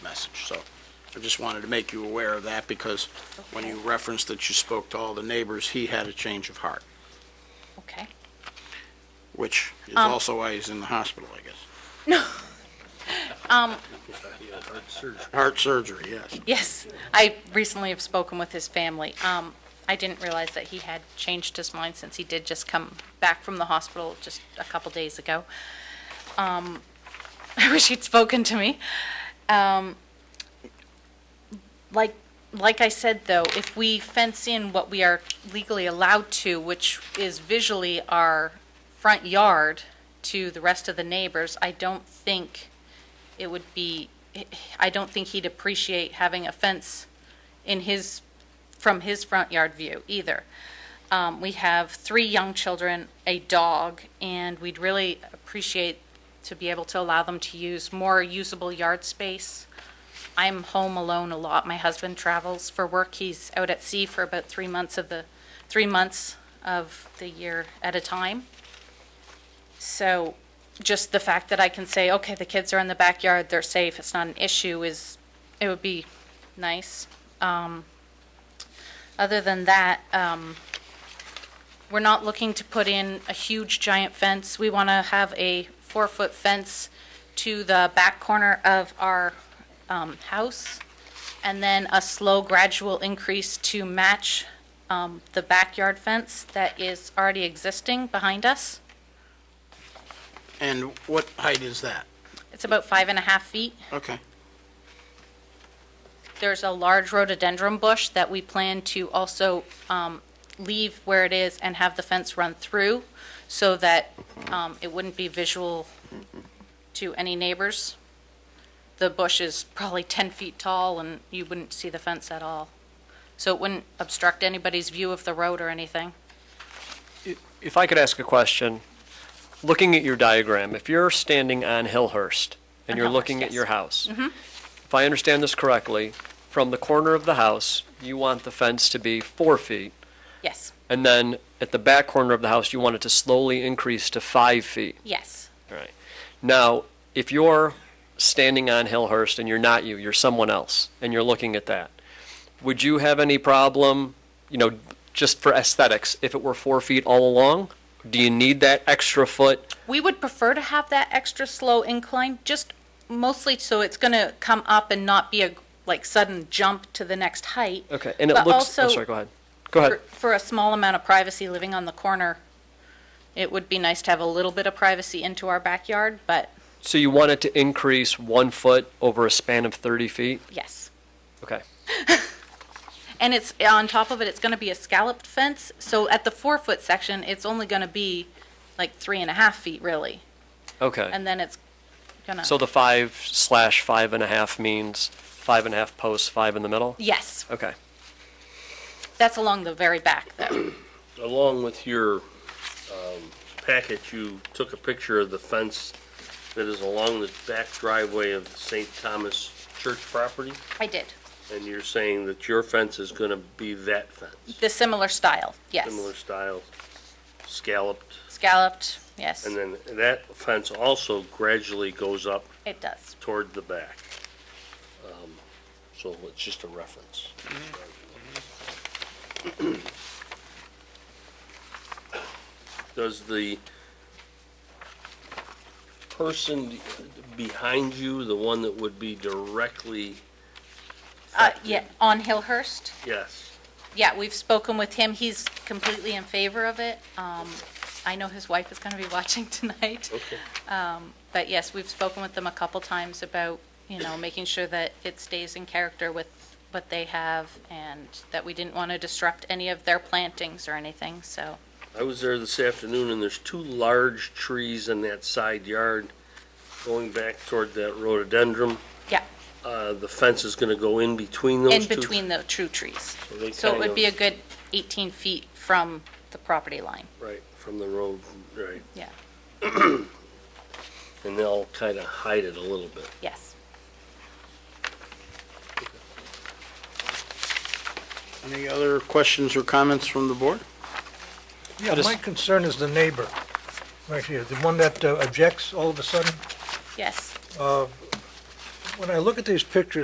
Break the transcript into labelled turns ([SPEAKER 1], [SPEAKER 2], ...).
[SPEAKER 1] passage, so I just wanted to make you aware of that, because when you referenced that you spoke to all the neighbors, he had a change of heart,
[SPEAKER 2] Okay.
[SPEAKER 1] which is also why he's in the hospital, I guess. No. Heart surgery, yes.
[SPEAKER 2] Yes, I recently have spoken with his family. Um, I didn't realize that he had changed his mind since he did just come back from the hospital just a couple days ago. Um, I wish he'd spoken to me. Um, like, like I said, though, if we fence in what we are legally allowed to, which is visually our front yard to the rest of the neighbors, I don't think it would be, I don't think he'd appreciate having a fence in his, from his front yard view either. Um, We have three young children, a dog, and we'd really appreciate to be able to allow them to use more usable yard space. I'm home alone a lot. My husband travels for work. He's out at sea for about three months of the, three months of the year at a time. So just the fact that I can say, okay, the kids are in the backyard, they're safe, it's not an issue is, it would be nice. Um, Other than that, um, we're not looking to put in a huge giant fence. We want to have a four-foot fence to the back corner of our um, house, and then a slow gradual increase to match um, the backyard fence that is already existing behind us.
[SPEAKER 1] And what height is that?
[SPEAKER 2] It's about five and a half feet.
[SPEAKER 1] Okay,
[SPEAKER 2] There's a large rhododendron bush that we plan to also um, leave where it is and have the fence run through so that um, it wouldn't be visual to any neighbors. The bush is probably 10 feet tall and you wouldn't see the fence at all. So it wouldn't obstruct anybody's view of the road or anything.
[SPEAKER 3] If I could ask a question, looking at your diagram, if you're standing on Hillhurst and you're
[SPEAKER 2] On Hillhurst,
[SPEAKER 3] looking at
[SPEAKER 2] yes.
[SPEAKER 3] your house, Mm-hmm. if I understand this correctly, from the corner of the house, you want the fence to be four feet,
[SPEAKER 2] Yes,
[SPEAKER 3] and then at the back corner of the house, you want it to slowly increase to five feet.
[SPEAKER 2] yes,
[SPEAKER 3] Right. Now, if you're standing on Hillhurst and you're not you, you're someone else, and you're looking at that, would you have any problem, you know, just for aesthetics, if it were four feet all along? Do you need that extra foot?
[SPEAKER 2] We would prefer to have that extra slow incline, just mostly so it's going to come up and not be a, like, sudden jump to the next height.
[SPEAKER 3] Okay, and it
[SPEAKER 2] But
[SPEAKER 3] looks, I'm
[SPEAKER 2] also-
[SPEAKER 3] sorry, go ahead. Go ahead.
[SPEAKER 2] For- For a small amount of privacy living on the corner, it would be nice to have a little bit of privacy into our backyard, but
[SPEAKER 3] So you want it to increase one foot over a span of 30 feet?
[SPEAKER 2] yes.
[SPEAKER 3] Okay.
[SPEAKER 2] And it's, on top of it, it's going to be a scalloped fence, so at the four-foot section, it's only going to be like three and a half feet, really.
[SPEAKER 3] Okay.
[SPEAKER 2] And then it's going to,
[SPEAKER 3] So the five slash five and a half means five and a half posts, five in the middle?
[SPEAKER 2] yes,
[SPEAKER 3] Okay.
[SPEAKER 2] that's along the very back, though.
[SPEAKER 4] Along with your um, packet, you took a picture of the fence that is along the back driveway of the St. Thomas Church property,
[SPEAKER 2] I did.
[SPEAKER 4] and you're saying that your fence is going to be that fence,
[SPEAKER 2] The similar style, yes.
[SPEAKER 4] similar style, scalloped,
[SPEAKER 2] Scalloped, yes,
[SPEAKER 4] and then that fence also gradually goes up
[SPEAKER 2] it does.
[SPEAKER 4] toward the back. Um, So it's just a reference. Does the person behind you, the one that would be directly?
[SPEAKER 2] Uh, yeah, on Hillhurst,
[SPEAKER 4] Yes.
[SPEAKER 2] yeah, we've spoken with him, he's completely in favor of it. Um, I know his wife is gonna be watching tonight, Um,
[SPEAKER 4] Okay.
[SPEAKER 2] but yes, we've spoken with them a couple times about, you know, making sure that it stays in character with what they have, and that we didn't wanna disrupt any of their plantings or anything, so,
[SPEAKER 4] I was there this afternoon and there's two large trees in that side yard going back toward that rhododendron.
[SPEAKER 2] yeah,
[SPEAKER 4] Uh, The fence is going to go in between those
[SPEAKER 2] in
[SPEAKER 4] two.
[SPEAKER 2] between the true trees.
[SPEAKER 4] they
[SPEAKER 2] So it
[SPEAKER 4] kind
[SPEAKER 2] would be a
[SPEAKER 4] of-
[SPEAKER 2] good eighteen feet from the property line,
[SPEAKER 4] Right, from the road, right.
[SPEAKER 2] yeah,
[SPEAKER 4] and they'll kind of hide it a little bit.
[SPEAKER 2] yes.
[SPEAKER 1] any other questions or comments from the board?
[SPEAKER 5] Yeah,
[SPEAKER 3] Just-
[SPEAKER 5] my concern is the neighbor, right here, the one that uh, objects all of a sudden.
[SPEAKER 2] Yes.
[SPEAKER 5] When I look at these pictures,